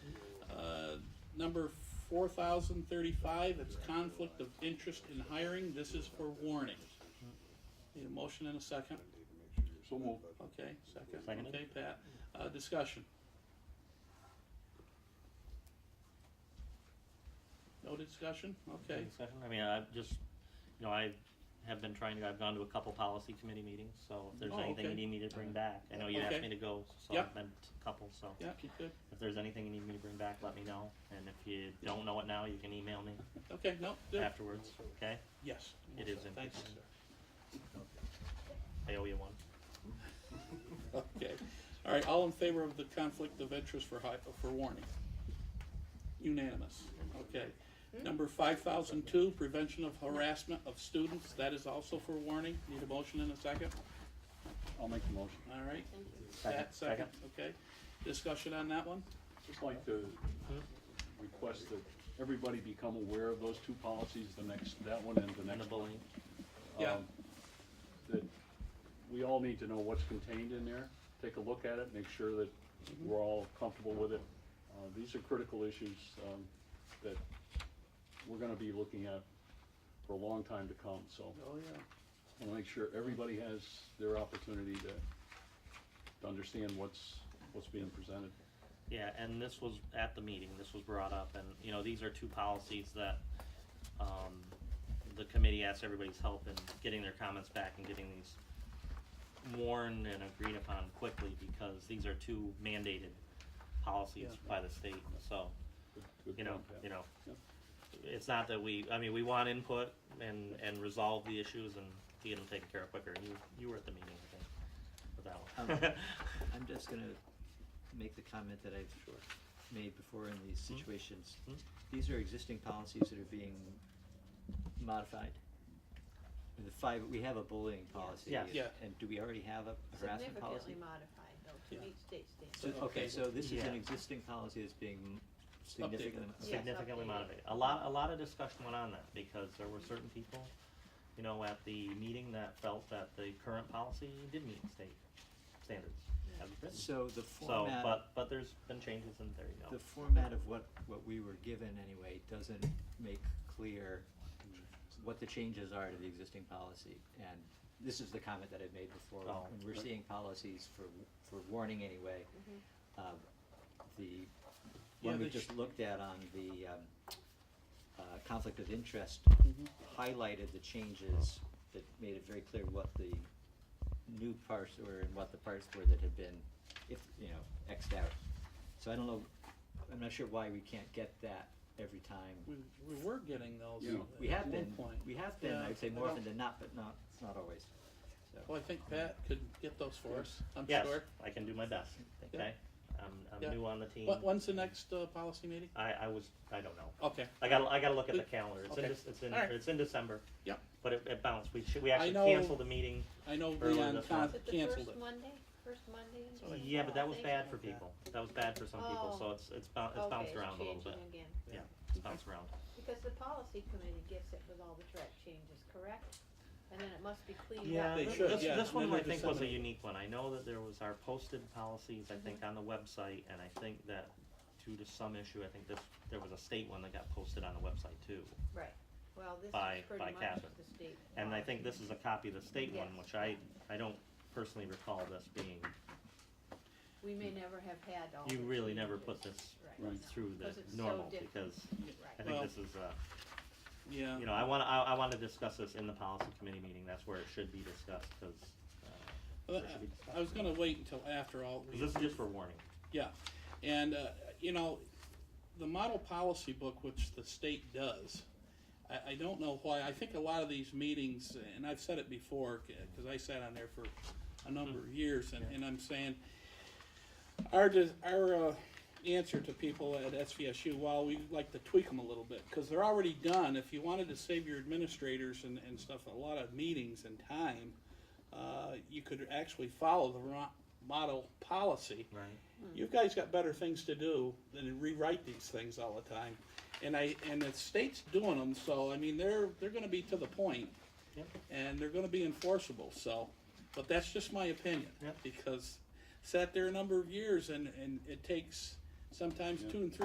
Uh, Number four thousand thirty-five, it's conflict of interest in hiring, this is for warning. Need a motion and a second? So moved. Okay, second, Seconded. okay, Pat, uh, discussion. No discussion, okay, Discussion? I mean, I've just, you know, I have been trying to, I've gone to a couple policy committee meetings, so if there's Oh, anything you okay. need me to bring back, I know you Okay. asked me to go, so Yep. I've been to a couple, so. yeah, you good, If there's anything you need me to bring back, let me know, and if you don't know it now, you can email me okay, no, good, afterwards, okay? yes. It is Thank you, interesting. sir. I owe you one. Okay, all right, all in favor of the conflict of interest for hi, for warning? Unanimous, okay. Hmm? Number five thousand two, prevention of harassment of students, that is also for warning, need a motion in a second, I'll make the motion. all right? Thank you. Pat, second, okay, discussion on that one? Just like to request that everybody become aware of those two policies, the next, that one and the And the next one. bullying, Yeah. Um, That we all need to know what's contained in there, take a look at it, make sure that we're all comfortable with it. Uh, These are critical issues um, that we're gonna be looking at for a long time to come, so. Oh, yeah. I wanna make sure everybody has their opportunity to, to understand what's, what's being presented. yeah, and this was at the meeting, this was brought up, and, you know, these are two policies that, um, the committee asked everybody's help in getting their comments back and getting these worn and agreed upon quickly, because these are two mandated policies Yeah. by the state, so, Good- good you know, point, Pat. you know. Yep. It's not that we, I mean, we want input and, and resolve the issues and get them taken care of quicker, you, you were at the meeting, I think, with that one. I'm just gonna make the comment that I've made before in these situations. Mhm. These are existing policies that are being modified. And The five, we have a bullying policy. Yes. Yeah. And do we already have a harassment Significantly policy? modified though, Yeah. to meet state So, standards. okay, so this is Yeah. an existing policy that's being significantly. Updated. Yes, significantly updated. motivated. A lot, a lot of discussion went on that because there were certain people, you know, at the meeting that felt that the current policy did meet state standards as written. So the So, format. but, but there's been changes and there you The go. format of what, what we were given anyway doesn't make clear what the changes are to the existing policy. And this is the comment that I've made before, Oh. when we're seeing policies for, for warning anyway. um, The, Yeah, one we they just sh- looked at on the um, uh, conflict of interest highlighted the changes that made it very clear what the new parts were and what the parts were that had been, if, you know, Xed out. So I don't know, I'm not sure why we can't get that every We, time. we were getting those Yeah. We at have one been, point. we have been, Yeah, I would say I more don't- often than not, but not, not always. So, Well, I think Pat could get those for us, I'm Yes, sure. I can do my best, Thank you. okay? I'm, Yeah. I'm new on the team. What, when's the next, uh, policy meeting? I, I was, I don't know. Okay, I gotta, I gotta look at the Good. calendar. It's in, Okay. Dec- it's in, All right. it's in December. Yep. But it, it bounced. We should, we I actually know- canceled the meeting. I know Early Leon this con- Is it the canceled first it. Monday, first Monday in January? Yeah, but that was Oh, Thank bad you. for people. That was bad for some people, so Oh. it's, it's bounced, it's Okay, bounced around a little bit. changing again, Yeah, it's bounced around. because the policy committee gets it with all the track changes, correct? And then it must be cleaned up. Yeah, They th- should, this, yeah, this one middle I of think was a December. unique one. I know that there was our posted policies, I think, Mm-hmm. on the website, and I think that due to some issue, I think this, there was a state one that got posted on the website too. Right, well, this By- is by pretty much Catherine. the state. And I policy. think this is a copy of the state one, Yes. which I, I don't personally recall this being, We may never have had all the you changes. really never put this Right. through the Because it's so normal, different. because I think Well, uh, this is, uh, Yeah, you know, I wanna, I, I wanna discuss this in the policy committee meeting, that's where it should be discussed, cause, uh, Uh, there should be discussion. I was gonna wait until after all. we- 'cause this is just for warning. Yeah, and, uh, you know, the model policy book, which the state does, I, I don't know why, I think a lot of these meetings, and I've said it before, because I sat on there for a number of years, and, and I'm saying, our, dis- our, uh, answer to people at SVSU, well, we like to tweak them a little bit, because they're already done, if you wanted to save your administrators and, and stuff, a lot of meetings and time, uh, you could actually follow the ro- model policy, Right. you guys got better things to do than to rewrite these things all the time. And I, and the state's doing them, so I mean, they're, they're gonna be to the point Yep. and they're gonna be enforceable, so. But that's just my opinion. Yep. Because sat there a number of years and, and it takes sometimes two and three